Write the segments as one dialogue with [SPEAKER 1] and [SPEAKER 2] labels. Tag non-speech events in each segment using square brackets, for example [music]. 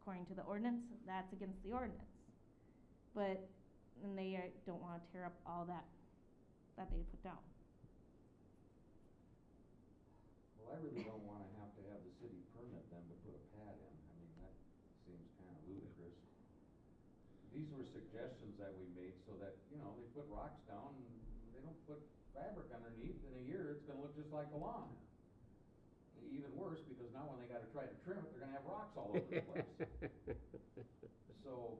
[SPEAKER 1] according to the ordinance, that's against the ordinance. But, and they uh, don't wanna tear up all that, that they put down.
[SPEAKER 2] Well, I really don't wanna have to have the city permit them to put a pad in, I mean, that seems kinda ludicrous. These were suggestions that we made so that, you know, they put rocks down, and they don't put fabric underneath, in a year, it's gonna look just like the lawn. Even worse, because now when they gotta try to trim it, they're gonna have rocks all over the place.
[SPEAKER 3] [laughs]
[SPEAKER 2] So,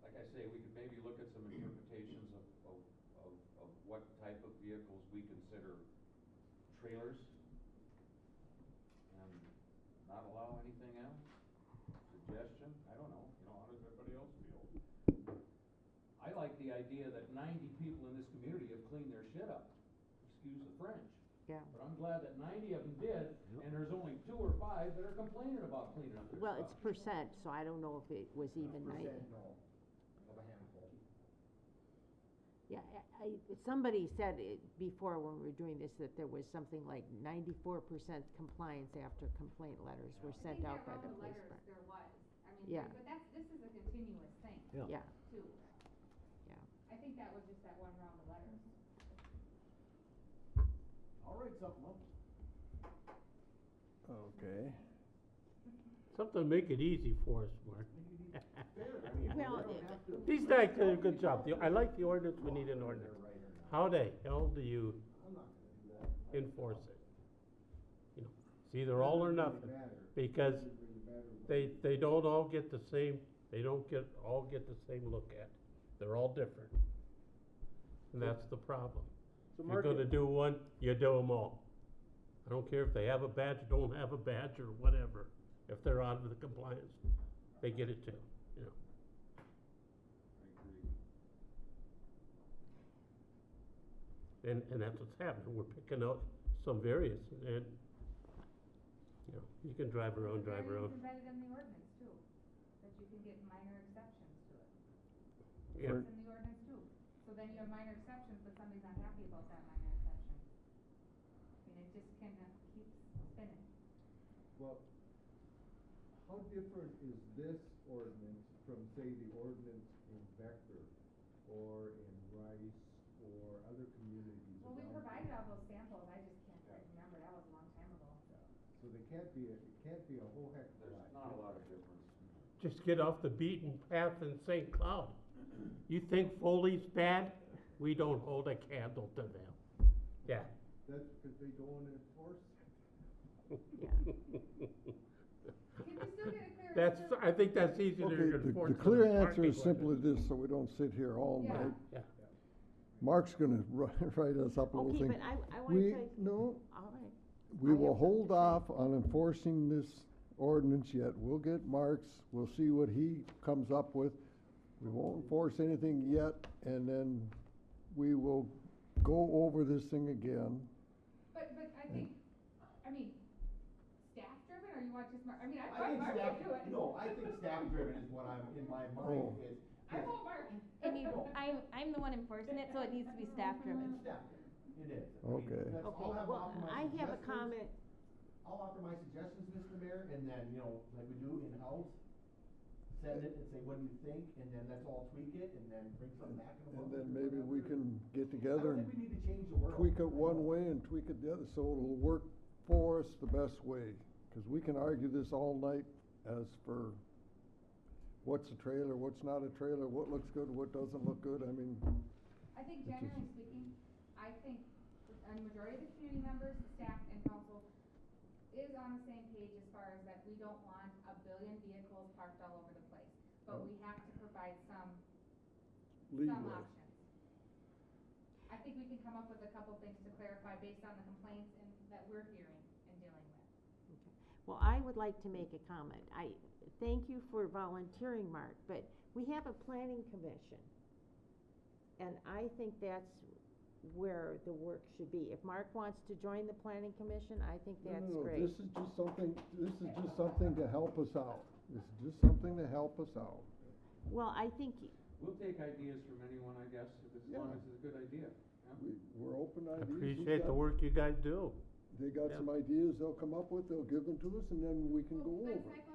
[SPEAKER 2] like I say, we could maybe look at some interpretations of, of, of, of what type of vehicles we consider trailers. And not allow anything else? Suggestion? I don't know, you know, how does everybody else feel? I like the idea that ninety people in this community have cleaned their shit up, excuse the French.
[SPEAKER 4] Yeah.
[SPEAKER 2] But I'm glad that ninety of them did, and there's only two or five that are complaining about cleaning up their
[SPEAKER 4] Well,
[SPEAKER 2] stuff.
[SPEAKER 4] it's percent, so I don't know if it was even ninety.
[SPEAKER 5] Percent no, of a handful.
[SPEAKER 4] Yeah, I, I- somebody said it before when we were doing this, that there was something like ninety-four percent compliance after complaint letters were sent out by the police department.
[SPEAKER 6] I think that one of the letters there was, I mean,
[SPEAKER 4] Yeah.
[SPEAKER 6] but that's, this is a continuous thing
[SPEAKER 3] Yeah.
[SPEAKER 4] Yeah,
[SPEAKER 6] too.
[SPEAKER 4] Yeah.
[SPEAKER 6] I think that was just that one round of letters.
[SPEAKER 5] I'll write something up.
[SPEAKER 3] Okay. Something to make it easy for us, Mark.
[SPEAKER 5] Fair, I mean, we
[SPEAKER 4] Well,
[SPEAKER 5] don't
[SPEAKER 4] it-
[SPEAKER 5] have to-
[SPEAKER 3] These guys did a good job. The- I like the ordinance, we need an
[SPEAKER 5] Whether
[SPEAKER 3] ordinance.
[SPEAKER 5] they're right or not.
[SPEAKER 3] How the hell do you
[SPEAKER 5] I'm not gonna do that.
[SPEAKER 3] enforce it? You know, it's either all or nothing, because they, they don't all get the same, they don't get, all get the same look at. They're all different. And that's the problem.
[SPEAKER 7] So
[SPEAKER 3] If you're
[SPEAKER 7] Mark,
[SPEAKER 3] gonna do one, you do them all. I don't care if they have a badge, don't have a badge, or whatever, if they're out of the compliance, they get it too, you know.
[SPEAKER 2] I agree.
[SPEAKER 3] And, and that's what's happening, we're picking out some various, and, you know, you can drive around, drive around,
[SPEAKER 6] Variance embedded in the ordinance too, that you can get minor exceptions to it.
[SPEAKER 3] yeah,
[SPEAKER 6] It's in the ordinance too. So then you have minor exceptions, but somebody's not happy about that minor exception. I mean, it just kind of keeps spinning.
[SPEAKER 8] Well, how different is this ordinance from, say, the ordinance in Becker or in Rice or other communities?
[SPEAKER 6] Well, we
[SPEAKER 8] around?
[SPEAKER 6] provided all those samples, I just can't remember, that was a long time ago.
[SPEAKER 8] So they can't be, a- it can't be a whole heck of a
[SPEAKER 2] There's
[SPEAKER 8] lot.
[SPEAKER 2] not a lot of difference.
[SPEAKER 3] just get off the beaten path in St. Cloud. You think Foley's bad? We don't hold a candle to them, yeah.
[SPEAKER 8] That's because they don't enforce it.
[SPEAKER 4] yeah.
[SPEAKER 6] Can we still get a clear
[SPEAKER 3] That's,
[SPEAKER 6] answer?
[SPEAKER 3] I think that's easier
[SPEAKER 7] okay,
[SPEAKER 3] to
[SPEAKER 7] the,
[SPEAKER 3] enforce.
[SPEAKER 7] the
[SPEAKER 3] than
[SPEAKER 7] clear
[SPEAKER 3] a
[SPEAKER 7] answer
[SPEAKER 3] parking
[SPEAKER 7] is simply
[SPEAKER 3] ordinance.
[SPEAKER 7] this, so we don't sit here all
[SPEAKER 6] Yeah.
[SPEAKER 7] night.
[SPEAKER 3] Yeah.
[SPEAKER 7] Mark's gonna [laughs] wri- write us up a little
[SPEAKER 4] Okay,
[SPEAKER 7] thing.
[SPEAKER 4] but I, I
[SPEAKER 7] We,
[SPEAKER 4] wanted to,
[SPEAKER 7] no,
[SPEAKER 4] all right.
[SPEAKER 7] we
[SPEAKER 4] I have
[SPEAKER 7] will
[SPEAKER 4] something
[SPEAKER 7] hold
[SPEAKER 4] to say.
[SPEAKER 7] off on enforcing this ordinance yet. We'll get Mark's, we'll see what he comes up with. We won't enforce anything yet, and then we will go over this thing again.
[SPEAKER 6] But, but
[SPEAKER 5] Hmm.
[SPEAKER 6] I think, I mean, staff driven, or you want just Mark, I mean, I
[SPEAKER 5] I
[SPEAKER 6] thought
[SPEAKER 5] think
[SPEAKER 6] Mark
[SPEAKER 5] staff,
[SPEAKER 6] would do it.
[SPEAKER 5] no, I think
[SPEAKER 6] [laughs]
[SPEAKER 5] staff driven is what I'm, in my mind
[SPEAKER 7] Oh.
[SPEAKER 5] is.
[SPEAKER 6] I want Mark.
[SPEAKER 1] And you, I'm, I'm the one enforcing it, so it needs to be staff driven.
[SPEAKER 5] It's staff driven, it is. I mean,
[SPEAKER 7] Okay.
[SPEAKER 5] that's- I'll
[SPEAKER 4] Okay,
[SPEAKER 5] have-
[SPEAKER 4] well,
[SPEAKER 5] I'll
[SPEAKER 4] I have a
[SPEAKER 5] suggestions.
[SPEAKER 4] comment,
[SPEAKER 5] I'll offer my suggestions, Mr. Mayor, and then, you know, like we do in-house, send it and say, what do you think? And then let's all tweak it and then bring something back in a month.
[SPEAKER 7] And then
[SPEAKER 5] or
[SPEAKER 7] maybe we
[SPEAKER 5] whatever.
[SPEAKER 7] can get
[SPEAKER 5] I
[SPEAKER 7] together
[SPEAKER 5] don't
[SPEAKER 7] and
[SPEAKER 5] think we need to change the world.
[SPEAKER 7] tweak
[SPEAKER 5] I
[SPEAKER 7] it one
[SPEAKER 5] don't.
[SPEAKER 7] way and tweak it the other, so it'll work for us the best way. Cause we can argue this all night as for what's a trailer, what's not a trailer, what looks good, what doesn't look good, I mean,
[SPEAKER 6] I think generally speaking, I think a majority of the community members, staff and council is on the same page as far as that we don't want a billion vehicles parked all over the place.
[SPEAKER 7] Oh.
[SPEAKER 6] But we have to provide some,
[SPEAKER 7] leeway.
[SPEAKER 6] some options. I think we can come up with a couple things to clarify based on the complaints and that we're hearing and dealing with.
[SPEAKER 4] well, I would like to make a comment. I, thank you for volunteering, Mark, but we have a planning commission. And I think that's where the work should be. If Mark wants to join the planning commission, I think
[SPEAKER 7] No, no,
[SPEAKER 4] that's
[SPEAKER 7] no,
[SPEAKER 4] great.
[SPEAKER 7] This is just something, this is just something to help us out, this is just something to help us out.
[SPEAKER 4] Well, I think
[SPEAKER 2] We'll take ideas from anyone, I guess, if as long
[SPEAKER 7] Yeah.
[SPEAKER 2] as it's a good idea. yeah?
[SPEAKER 7] We, we're open
[SPEAKER 3] I
[SPEAKER 7] ideas. He's
[SPEAKER 3] Appreciate the
[SPEAKER 7] got-
[SPEAKER 3] work you guys do.
[SPEAKER 7] They got
[SPEAKER 3] yeah.
[SPEAKER 7] some ideas they'll come up with, they'll give them to us, and then we can
[SPEAKER 6] Well,
[SPEAKER 7] go
[SPEAKER 6] But
[SPEAKER 7] over.
[SPEAKER 6] cycle